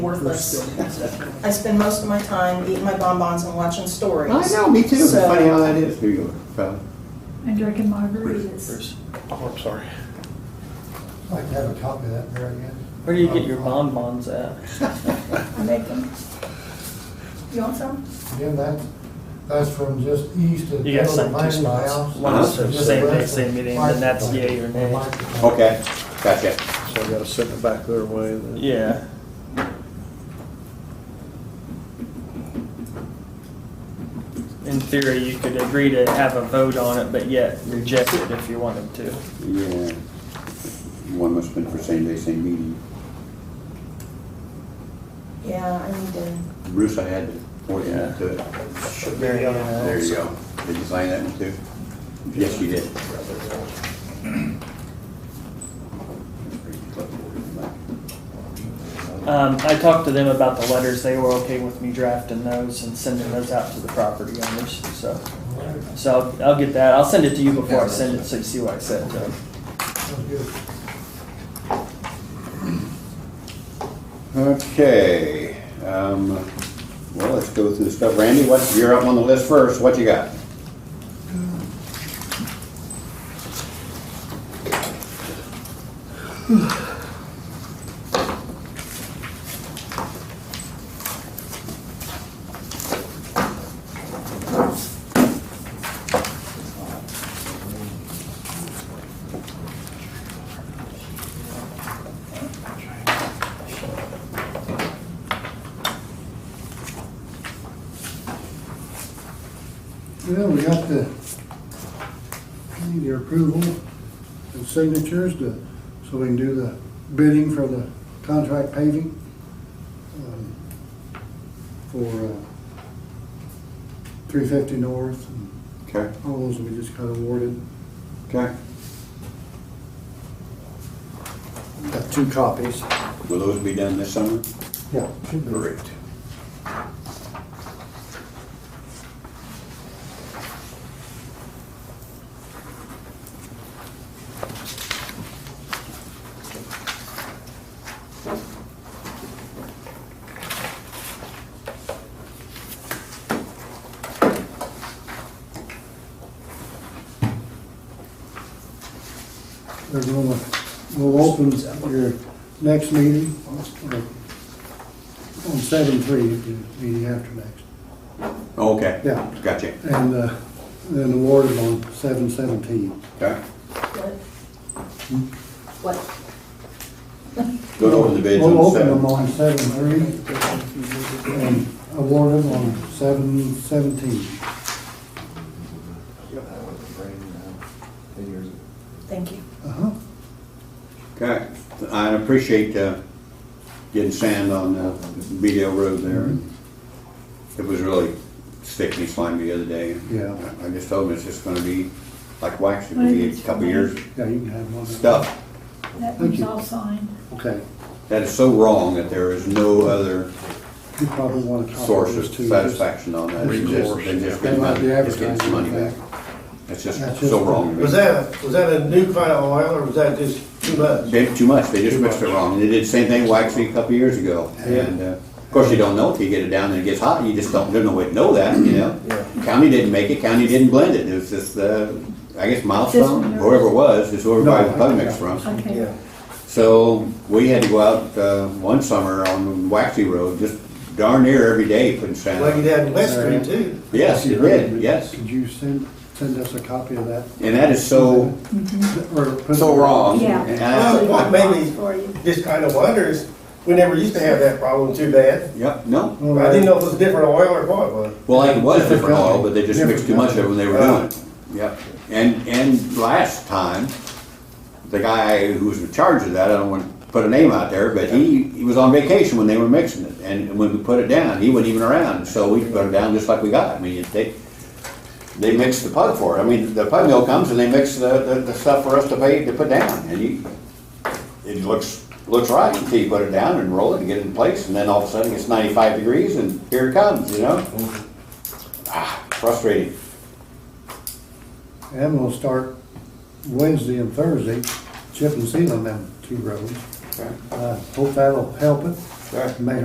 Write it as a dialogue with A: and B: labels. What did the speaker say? A: worthless. I spend most of my time eating my bonbons and watching stories.
B: I know, me too. It's
A: So-
B: funny how that is, New York. So,
C: And drinking margaritas.
D: Oh, I'm sorry.
E: I'd like to have a copy of that, Mary Ann.
F: Where do you get your bonbons at?
C: I make them. You want some?
E: Again, that, that's from just east of.
F: You got sent
E: Miami
F: two spots.
E: House.
F: One is the
E: Just
F: same day,
E: west of
F: same meeting, and then that's
E: Microphone.
F: yay or nay.
E: Microphone.
B: okay, gotcha.
D: So I gotta send it back their way. then.
F: Yeah. In theory, you could agree to have a vote on it, but yet reject it if you wanted to.
B: Yeah. One must have been for same day, same meeting.
A: Yeah, I need to,
B: Bruce, I had to point you to it.
F: Very
B: There you go. Did you sign that one too? Yes, you did.
F: Um, I talked to them about the letters. They were okay with me drafting those and sending those out to the property owners, so.
E: All right,
F: So I'll, I'll get that. I'll send it to you before I send it, so you see what I said to them.
E: sounds good.
B: Okay, um, well, let's go through the stuff. Randy, what, you're up on the list first. What you got?
E: Well, we got the, need your approval and signatures to, so we can do the bidding for the contract paving. um, For uh, three fifty north and
B: Okay,
E: all those we just got awarded.
B: okay.
E: Got two copies.
B: Will those be done this summer?
E: Yeah.
B: Great.
E: They're gonna, we'll open your next meeting or on seven three, meeting after next.
B: Okay.
E: Yeah.
B: Gotcha.
E: And uh, then awarded on seven seventeen.
B: Okay.
A: what?
B: Hmm?
A: What?
B: Go over the bids on
E: We'll open them
B: seven.
E: on seven three and award them on seven seventeen.
A: Thank you.
E: Uh-huh.
B: Okay, I appreciate uh, getting sand on uh, Beedale Road there. It was really sticky and slimy the other day.
E: Mm-hmm. Yeah.
B: I just told him it's just gonna be like wax, it'll
C: I think
B: be a
C: it's
B: couple
C: fine.
B: years
E: Yeah, you can have one.
B: stuff.
C: That
E: Thank
C: one's
E: you.
C: all signed.
E: Okay.
B: That is so wrong that there is no other
E: You probably want to copy
B: source
E: those
B: of
E: Oh, two.
B: satisfaction on that. It's just-
D: Recourse,
B: They just
D: yeah.
B: get
E: They might
B: money,
E: be
B: just getting some money
E: advertising,
B: back. It's just
E: That's
B: so
E: just-
B: wrong.
G: Was that, was that a new kind of oil, or was that just too much?
B: They did too much, they just mixed it wrong. They did the same thing waxing a couple years ago. And, uh, of course, you don't know till you get it down and it gets hot, you just don't, there's no way to know that, you know? County didn't make it, county didn't blend it, it was just, uh, I guess
C: one
B: milestone,
C: there.
B: whoever it was, just whoever
E: No,
B: bought
E: I-
B: the bug mix from.
C: Okay.
B: So, we had to go out, uh, one summer on Waxy Road, just darn near every day putting sand
G: Like you
B: on.
G: had in West Street too.
B: Yes, it did, yes.
E: Could you send, send us a copy of that?
B: And that is so,
E: Or put-
B: so wrong.
C: Yeah.
B: And I-
G: Well, what made
A: Bonbons
G: me
A: For you.
G: just kind of wonder is, we never used to have that problem too bad.
B: Yep, no.
E: All
G: I
E: right.
G: didn't know if it was different oil or what it was.
B: Well, like it was
E: Different
B: different oil,
E: company.
B: but they just
E: Different
B: mixed too much of it when they were doing
G: company.
B: it. Yep. And, and last time, the guy who was in charge of that, I don't want to put a name out there, but he, he was on vacation when they were mixing it. And when we put it down, he wasn't even around, so we put it down just like we got. I mean, they, they mixed the pug for it. I mean, the pug mill comes and they mix the, the, the stuff for us to pay, to put down. And you, it looks, looks right until you put it down and roll it and get it in place, and then all of a sudden it's ninety-five degrees and here it comes, you know? Frustrating.
E: And we'll start Wednesday and Thursday, chip and seal on them two roads.
B: Okay.
E: Uh, Hope that'll help it.
B: Sure.
E: May